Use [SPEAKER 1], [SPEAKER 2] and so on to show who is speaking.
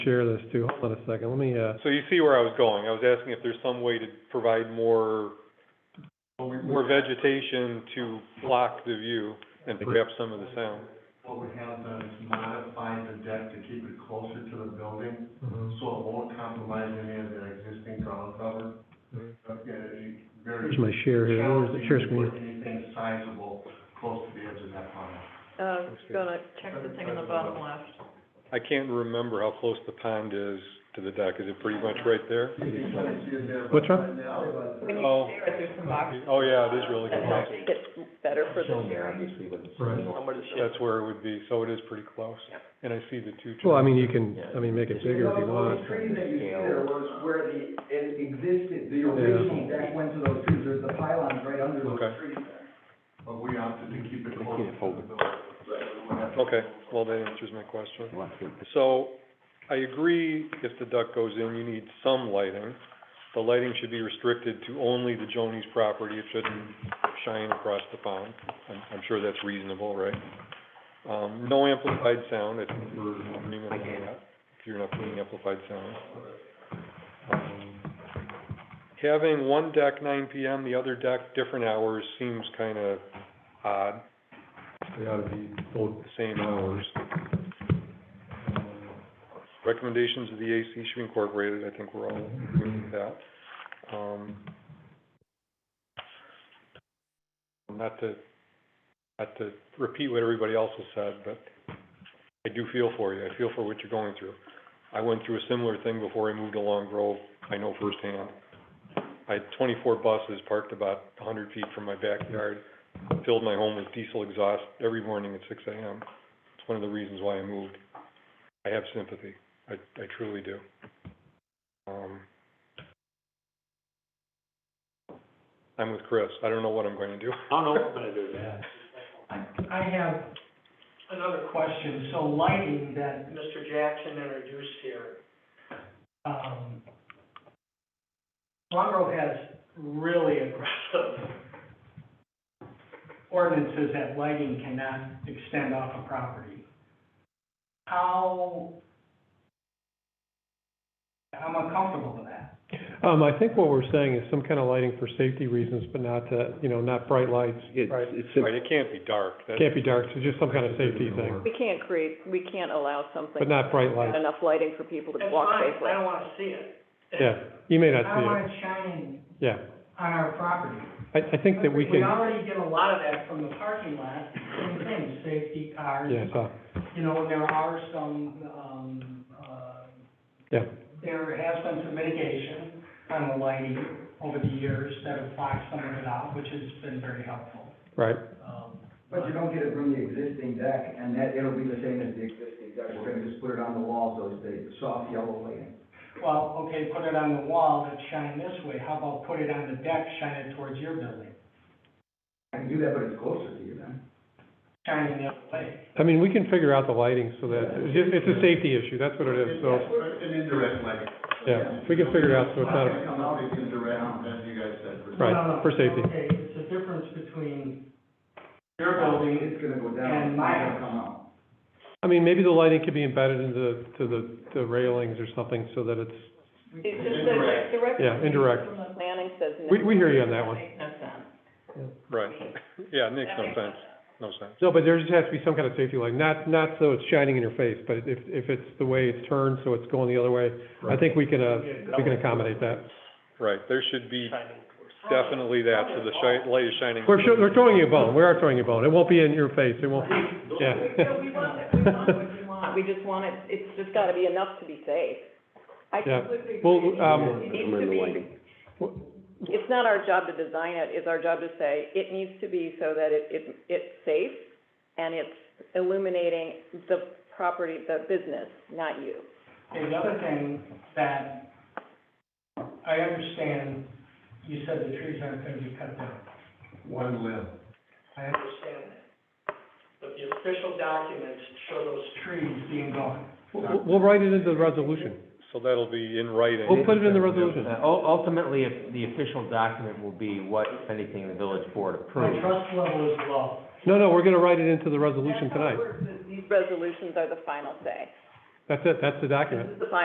[SPEAKER 1] share this too. Hold on a second, let me, uh,
[SPEAKER 2] So you see where I was going. I was asking if there's some way to provide more, more vegetation to block the view and perhaps some of the sound.
[SPEAKER 3] What we have done is modified the deck to keep it closer to the building,
[SPEAKER 1] mhm.
[SPEAKER 3] so it won't compromise any of the existing ground cover.
[SPEAKER 1] Mhm.
[SPEAKER 3] Okay, very.
[SPEAKER 1] Where's my share here? Where's the
[SPEAKER 3] challenging
[SPEAKER 1] share
[SPEAKER 3] to
[SPEAKER 1] screen?
[SPEAKER 3] put Anything sizable close to the edge of that pond.
[SPEAKER 4] Uh, just gonna check the thing on the
[SPEAKER 1] Uh,
[SPEAKER 4] bottom left.
[SPEAKER 5] Oh.
[SPEAKER 2] I can't remember how close the pond is to the deck. Is it pretty much right there?
[SPEAKER 1] What's wrong?
[SPEAKER 4] When you
[SPEAKER 2] Oh.
[SPEAKER 4] share it, there's some boxes.
[SPEAKER 2] Oh, yeah, it is really
[SPEAKER 4] That
[SPEAKER 2] close.
[SPEAKER 4] helps it get better for the sharing.
[SPEAKER 1] Right.
[SPEAKER 2] That's where it would be, so it is pretty close. And I see the two.
[SPEAKER 1] Well, I mean, you can, I mean, make it bigger if you
[SPEAKER 6] The
[SPEAKER 1] want.
[SPEAKER 6] trees that you see there was where the, it existed, the
[SPEAKER 1] Yeah.
[SPEAKER 6] original deck went to those trees, there's the pylons right under those
[SPEAKER 2] Okay.
[SPEAKER 6] trees.
[SPEAKER 3] But we opted to keep it closer to the building.
[SPEAKER 2] Okay, well, that answers my question. So, I agree, if the duck goes in, you need some lighting. The lighting should be restricted to only the Joni's property, it shouldn't shine across the pond. I'm, I'm sure that's reasonable, right? Um, no amplified sound, I think we're agreeing on that, if you're not putting amplified sound. Um, Having one deck nine PM, the other deck different hours seems kinda odd,
[SPEAKER 1] They ought to be both
[SPEAKER 2] the same hours. Um, Recommendations of the AC should be incorporated, I think we're all agreeing with that. Um, Not to, not to repeat what everybody else has said, but I do feel for you, I feel for what you're going through. I went through a similar thing before I moved to Long Grove, I know firsthand. I had twenty-four buses parked about hundred feet from my backyard, filled my home with diesel exhaust every morning at six AM. It's one of the reasons why I moved. I have sympathy. I, I truly do. Um, I'm with Chris. I don't know what I'm going to do.
[SPEAKER 7] I don't know what I'm gonna do that.
[SPEAKER 5] I I have another question. So lighting that Mr. Jackson introduced here, um, Long Grove has really aggressive ordinances that lighting cannot extend off a property. How, I'm uncomfortable with that.
[SPEAKER 1] Um, I think what we're saying is some kind of lighting for safety reasons, but not to, you know, not bright lights. Right.
[SPEAKER 2] Right, it can't be dark. That-
[SPEAKER 1] Can't be dark, so just some kind of safety thing,
[SPEAKER 4] We can't create, we can't allow something.
[SPEAKER 1] but not bright
[SPEAKER 4] with
[SPEAKER 1] lights.
[SPEAKER 4] Enough lighting for people to
[SPEAKER 5] That's
[SPEAKER 4] walk
[SPEAKER 5] fine.
[SPEAKER 4] safely.
[SPEAKER 5] I don't want to see it.
[SPEAKER 1] Yeah, you may not
[SPEAKER 5] I
[SPEAKER 1] see
[SPEAKER 5] don't want it shining
[SPEAKER 1] it, yeah.
[SPEAKER 5] on our property.
[SPEAKER 1] I, I think that we
[SPEAKER 5] We
[SPEAKER 1] can,
[SPEAKER 5] already get a lot of that from the parking lot, same thing, safety cars.
[SPEAKER 1] yeah, so,
[SPEAKER 5] You know, there are some, um, uh,
[SPEAKER 1] yeah.
[SPEAKER 5] there has been some mitigation on the lighting over the years that have blocked some of it out, which has been very helpful.
[SPEAKER 1] Right,
[SPEAKER 5] Um,
[SPEAKER 6] But you don't get it from the existing deck, and that, it'll be the same as the existing deck, we're gonna just put it on the walls, those big, soft yellow lighting.
[SPEAKER 5] Well, okay, put it on the wall that shine this way, how about put it on the deck, shine it towards your building,
[SPEAKER 6] I can do that, but it's closer to you then.
[SPEAKER 5] shine it the other way.
[SPEAKER 1] I mean, we can figure out the lighting so that, it's just- it's a safety issue, that's what it is, so,
[SPEAKER 3] An indirect lighting.
[SPEAKER 1] yeah, we can figure it out, so it's not, a-
[SPEAKER 3] Come out as indirect, as you guys said. for-
[SPEAKER 1] Right,
[SPEAKER 5] No, no,
[SPEAKER 1] for safety.
[SPEAKER 5] Okay, it's a difference between your building
[SPEAKER 6] It's gonna go down,
[SPEAKER 5] And
[SPEAKER 6] it's
[SPEAKER 5] my-
[SPEAKER 6] gonna come out.
[SPEAKER 1] I mean, maybe the lighting could be embedded into, to the, the railings or something so that it's,
[SPEAKER 4] It's just that like, the record.
[SPEAKER 1] Yeah, indirect.
[SPEAKER 4] From the planning says. no.
[SPEAKER 1] We- we hear you on that one.
[SPEAKER 4] Makes no sense.
[SPEAKER 2] Right. Yeah, it makes
[SPEAKER 4] That
[SPEAKER 2] no
[SPEAKER 4] makes
[SPEAKER 2] sense. No sense.
[SPEAKER 1] No, but there just has to be some kind of safety light, not, not so it's shining in your face, but if, if it's the way it's turned, so it's going the other way, I think we can, uh, we can accommodate that.
[SPEAKER 2] Right, there should be definitely that, so the shi- light is shining.
[SPEAKER 1] We're sho we're throwing you a bone, we are throwing you a bone, it won't be in your face, it won't, yeah.
[SPEAKER 4] We want it, we want what you want. We just want it, it's just gotta be enough to be safe. I
[SPEAKER 1] Yeah.
[SPEAKER 4] completely agree.
[SPEAKER 1] Well,
[SPEAKER 4] It needs to-
[SPEAKER 1] um,
[SPEAKER 4] It needs to be, it's not our job to design it, it's our job to say, it needs to be so that it, it, it's safe and it's illuminating the property, the business, not you.
[SPEAKER 5] Okay, the other thing that I understand, you said the trees aren't gonna be cut down.
[SPEAKER 3] One limb.
[SPEAKER 5] I understand that. But the official documents show those trees being gone.
[SPEAKER 1] We'll, we'll write it into the resolution,
[SPEAKER 2] So that'll be in writing.
[SPEAKER 1] we'll put it in the resolution.
[SPEAKER 8] Uh, ul- Ultimately, if the official document will be what, if anything, the village board
[SPEAKER 5] My
[SPEAKER 8] approves.
[SPEAKER 5] trust level is low.
[SPEAKER 1] No, no, we're gonna write it into the resolution
[SPEAKER 4] That's how it
[SPEAKER 1] tonight.
[SPEAKER 4] works, is These resolutions are the final say.
[SPEAKER 9] That's it, that's the document.
[SPEAKER 1] This is the final